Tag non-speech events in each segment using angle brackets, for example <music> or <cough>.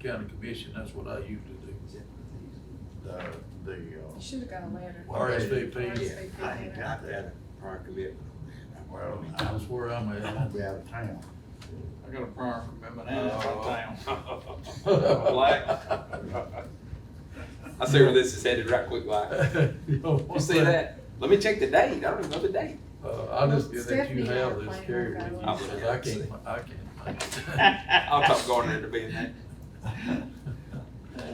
county commission, that's what I used to do. The, the, uh. You should have got a letter. Well, it- RSVP. yeah, I ain't got that. prior <laughs> commitment. Well, I That's where I'm am <laughs> gonna at. be out of town. <laughs> I got a prior commitment out of town. Black. I see where this is headed right <laughs> quick, like, you see that? Let me check the date, I don't even know the date. Uh, I'll just get that you Stephanie had have a this plan, carry with I've you, got one. because I can't, I can't. <laughs> <laughs> I'll talk Gardner to be in that. Uh,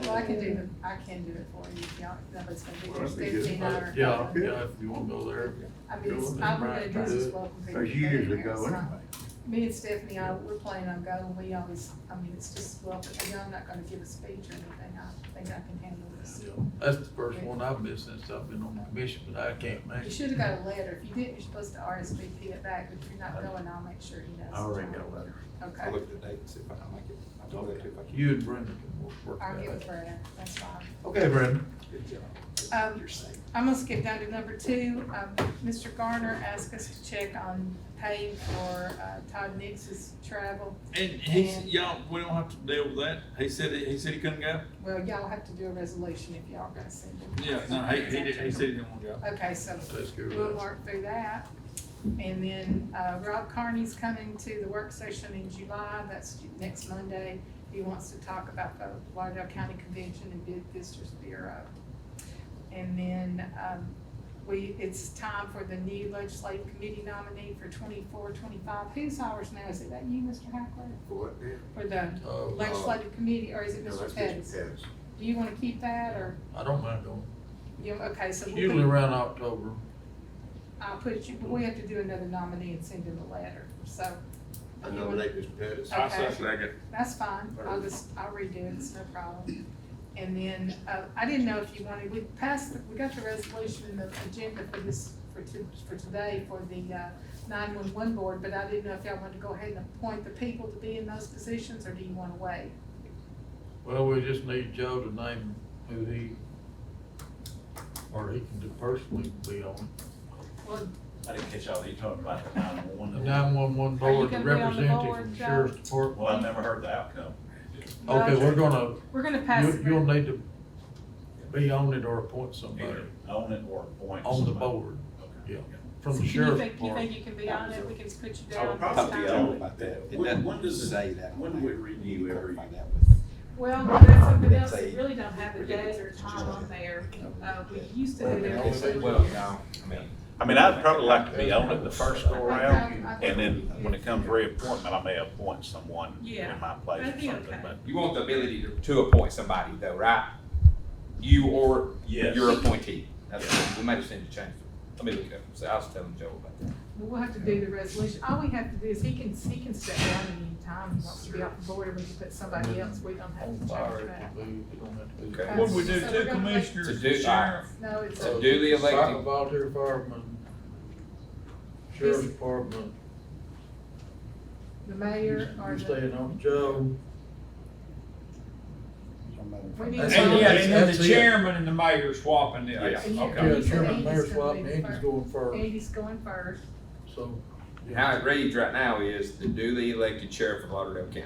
Well, I can do the, I can do it for you, if y'all, nobody's gonna be Well, there, that'd be good. fifteen hour. Yeah, yeah, if you wanna go there. I mean, it's, I'm gonna do is welcome people. Cause you usually go It's not- anyway. Me and Stephanie, I, we're planning on going, we always, I mean, it's just welcome, and I'm not gonna give a speech or anything, I think I can handle this. Yeah, That's the first one I've missed since I've been on the commission, but I can't make You it. should have got a letter, if you didn't, you're supposed to RSVP it back, but if you're not going, I'll make sure he knows. I already got a letter. I'll Okay, look at the date and see if I can make it. I'll do that too if I can. You and Brenda can work- work I'll give it that out. for you, that's fine. Okay, Brandon. Good job. Um, You're safe. I'm gonna skip down to number two. Um, Mr. Garner asked us to check on paying for uh, Todd Nix's travel. And he, s- y'all, we don't have to deal with that. He said, he he said he couldn't go? Well, y'all have to do a resolution if y'all gonna send him. Yeah, no, he, he did, he said he didn't want to go. Okay, so That's good. we'll work through that. And then, uh, Rob Carney's coming to the work session in July, that's ju- next Monday. He wants to talk about the Lauderdale County Convention and Bid Visitors Bureau. And then, um, we, it's time for the new legislative committee nominee for 24, 25. Who's ours now? Is it that you, Mr. Hackler? What? Yeah, For the Uh, legislative committee, or is it that's Mr. Mr. Pettis? Pettis. Do you wanna keep that, or, I don't mind going. you, okay, so. we'll put- Usually around October, I'll put you, but we have to do another nominee and send him a letter, so. I nominate Mr. Pettis. I Okay. second. That's fine, I'll just, I'll redo it, it's no problem. And then, uh, I didn't know if you wanted, we passed, the- we got the resolution, the agenda for this, for to, for today, for the, uh, nine-one-one board, but I didn't know if y'all wanted to go ahead and appoint the people to be in those positions, or do you wanna wait? well, we just need Joe to name who he, or he can do personally be on. it. Well, I didn't catch all that, you talking about the The nine-one-one. nine-one-one Are you board, the gonna be on the representative board, from the Joe? sheriff's department. Well, I never heard the outcome. Okay, we're gonna, we're gonna pass. you, it. you'll need to be on it or appoint somebody Either own it or appoint. on the somebody. board Okay. yeah. from So the you sheriff's think- You department. think you can be on it, we can put you I down. would this Talk to time? y'all about that. It When- doesn't when does it- say that. when do we renew every- Clarify that with- Well, that's something Let's else, say- we really don't have a date or time on there. Uh, we used to do that. It's a- every Well, year. no, I mean. I mean, I'd probably like to be on it the first go around, I- I- I- and then when it comes to reappointment, I may appoint someone Yeah. in my place That'd or be something, okay. but. You want the ability to, to appoint somebody though, right? You or Yes. your appointee. That's, we might just need to change it. Let me look it up. So I was telling Joe about that. We'll have to do the resolution, all we have to do is, he can, he can step down at any time, he wants to be off the board, and we can put somebody else, we don't have On to fire, change it that. can be, you don't have to be. Okay. What we So do, two we're gonna make- commissioners, To do- the sheriff. No, it's, So Uh, duly elected- Cycle Volunteer fireman, sheriff's This- department, the mayor or you're the, staying on Joe. we need. That's And fine. yeah, and then That's the it. chairman and the mayor swapping it. Yeah. Yeah. Okay. Yeah, Okay. chairman, Andy's mayor gonna swap, be and Andy's first. going first, Andy's going first, so. How it reads right now is the duly elected sheriff of Lauderdale County.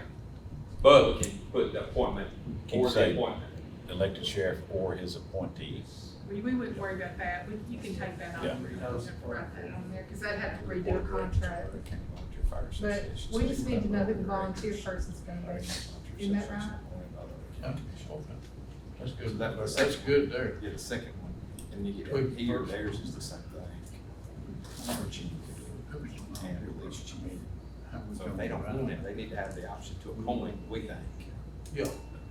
But we can put the appointment Can you or the say- appointment. Elected sheriff or his appointee. we, we wouldn't worry about that, we, you can take that off, Yeah. we don't have to write that on there, cause I'd have to redo a contract. County Volunteer Fire But Association. we just need to know who the volunteer person's gonna be. Isn't that right? That's good, That was- that's good there. Yeah, the second one, and you Wait, get, he or first. theirs is the same thing. And at least you mean. So if they don't want it, they need to have the option to appoint, we think, Yeah,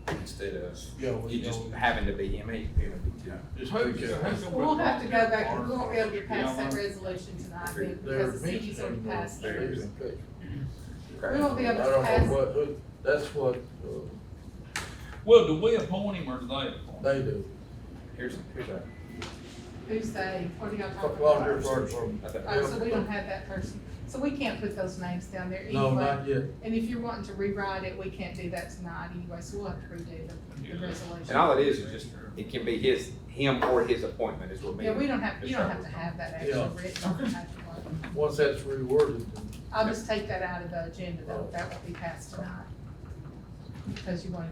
instead of yeah, we you just know. having to be, I mean, it would be too. Just Who's- take it. who's gonna We'll put have to go back, Walter? we won't be able to pass that Yeah. resolution tonight, They're- They're because the city's already mentioning passed those theirs. things in case. We won't be I able to don't know pass, what, who- that's what, uh, Well, do we appoint him or do they appoint? him? they do. Here's, here's a, who's they, what are y'all talking Volunteer about? fire department. I think- Oh, so we don't have that person, so we can't put those names down there No, anyway. not yet. And if you're wanting to rewrite it, we can't do that tonight anyway, so we'll have to redo the, the and all resolution. it is is just, it can be his, him or his appointment is what we. Yeah, we don't have, you don't Mr. have to have that actually Yeah. written on the paperwork. Once that's reworded, then I'll just take that out of the agenda, though, that will be passed tonight. Because you wanted